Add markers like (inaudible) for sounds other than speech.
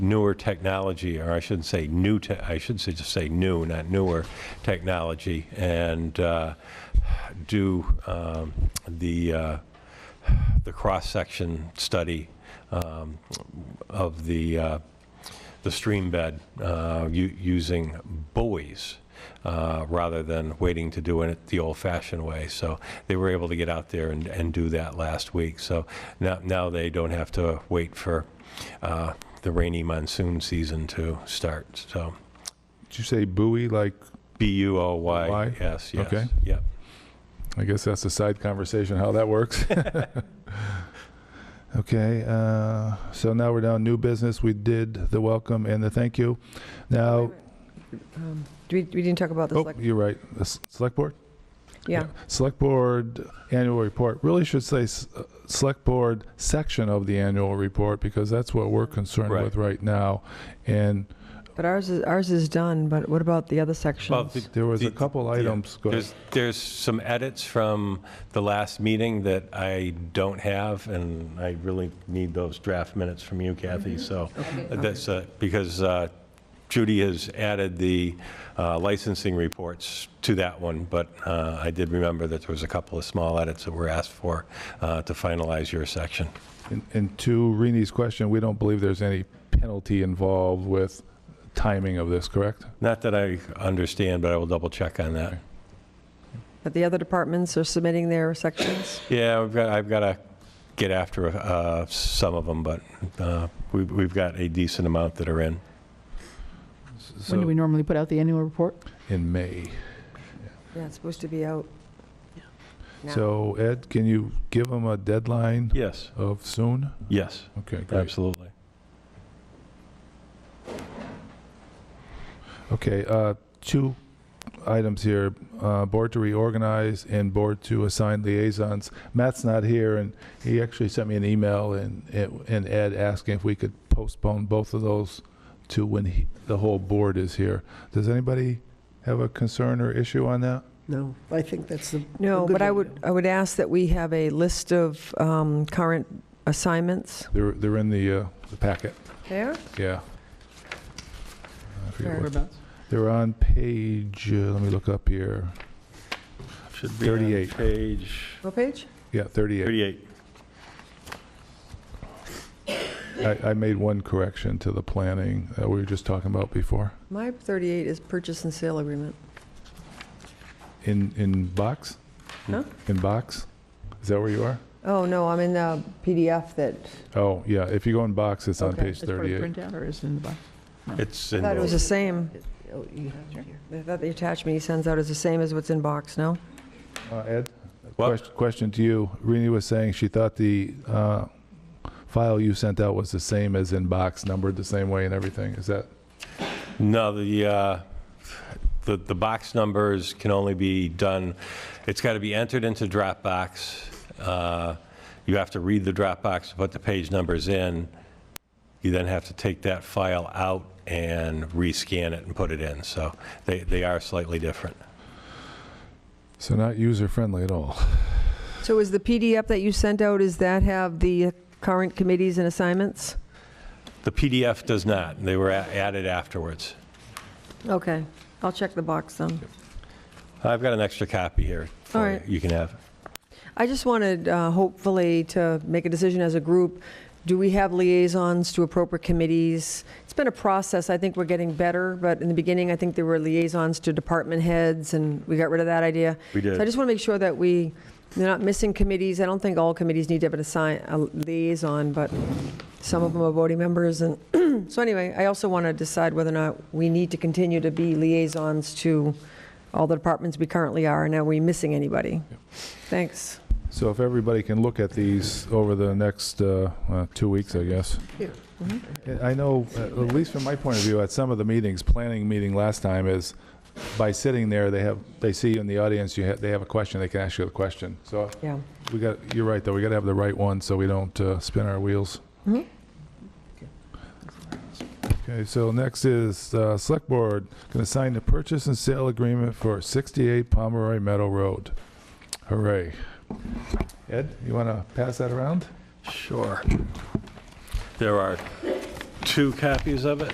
newer technology, or I shouldn't say new, te- I should say just say new, not newer technology, and uh, do um, the, uh, the cross-section study um, of the, uh, the stream bed uh, u- using buoys uh, rather than waiting to do it the old-fashioned way. So they were able to get out there and, and do that last week. So now, now they don't have to wait for uh, the rainy monsoon season to start. So Did you say buoy? Like, B-U-O-Y, Y? yes, yes. Okay. Yep. I guess that's a side conversation how (laughs) that works. (laughs) okay. Uh, so now we're down new business. We did the welcome and the thank you. Now, Um, do We we didn't talk about the oh, select, you're right. The s- select board. yeah. Select Board Annual Report, really should say s- uh, Select Board section of the annual report, because that's what we're concerned Right. with right now. And But ours is, ours is done, but what about the other sections? the- there was a the- couple yeah. items, go ahead. There's, there's some edits from the last meeting that I don't have, and I really need those draft minutes from you, Kathy, so that's, uh, because uh, Judy has added the uh, licensing reports to that one, but uh, I did remember that there was a couple of small edits that were asked for uh, to finalize your section. And- and to Rini's question, we don't believe there's any penalty involved with timing of this, correct? Not that I understand, but I will double-check on that. But the other departments are submitting their sections? Yeah, we've got, I've got to get after uh, some of them, but uh, we- we've got a decent amount that are in. When do So, we normally put out the annual report? in May. Yeah, it's supposed to be out. now. So Ed, can you give them a deadline Yes, of soon? yes, Okay, great. absolutely. Okay, uh, two items here, uh, board to reorganize and board to assign liaisons. Matt's not here, and he actually sent me an email and, and Ed asking if we could postpone both of those to when he, the whole board is here. Does anybody have a concern or issue on that? No, I think that's the. No, a good but I idea. would, I would ask that we have a list of um, current assignments. They're, they're in the, uh, the packet, There? yeah. I forget what- Whereabouts? They're on page, uh, let me look up here, Should be on 38. Page What page? yeah, 38. 38. I, I made one correction to the planning that we were just talking about before. My 38 is purchase and sale agreement. In, in box? Huh? In box? Is that where you are? Oh, no, I'm in the PDF that, Oh, yeah, if you go in box, it's on Okay. page Is it part of 38. printout or is it in the box? It's I in thought it was both. the same. Oh, you have it here. I thought the attachment he sends out is the same as what's in box, no? Uh, Ed? What? Question- Question to you. Rini was saying she thought the uh, file you sent out was the same as in box, numbered the same way and everything. Is that, No, the, uh, the the box numbers can only be done, it's got to be entered into Dropbox. Uh, You have to read the Dropbox, to put the page numbers in. You then have to take that file out and rescan it and put it in. So they they are slightly different. so not user-friendly at all? So is the PDF that you sent out, is that have the current committees and assignments? The PDF does not. They were a- added afterwards. Okay, I'll check the box then. I've got an extra copy here. for All you. right. You can have. it. I just wanted, uh, hopefully, to make a decision as a group. Do we have liaisons to appropriate committees? It's been a process. I think we're getting better, but in the beginning, I think there were liaisons to department heads, and we got rid of that idea. We So I did. just want to make sure that we, they're not missing committees. I don't think all committees need to have an assign, a liaison, but some of them are voting members. And (clears throat) so anyway, I also want to decide whether or not we need to continue to be liaisons to all the departments we currently are, and are we missing anybody? Thanks. So if everybody can look at these over the next uh, uh, two weeks, I guess. Here. And I know, uh, at least from my point of view, at some of the meetings, planning meeting last time is, by sitting there, they have, they see you in the audience, you have, they have a question, they can ask you a question. So Yeah. we got, you're right, though, we got to have the right one so we don't uh, spin our wheels. Mhm. Okay, so next is uh, Select Board, going to sign the purchase and sale agreement for 68 Pomeroy Meadow Road. Hooray. Ed, you want to pass that around? Sure. There are two copies of it?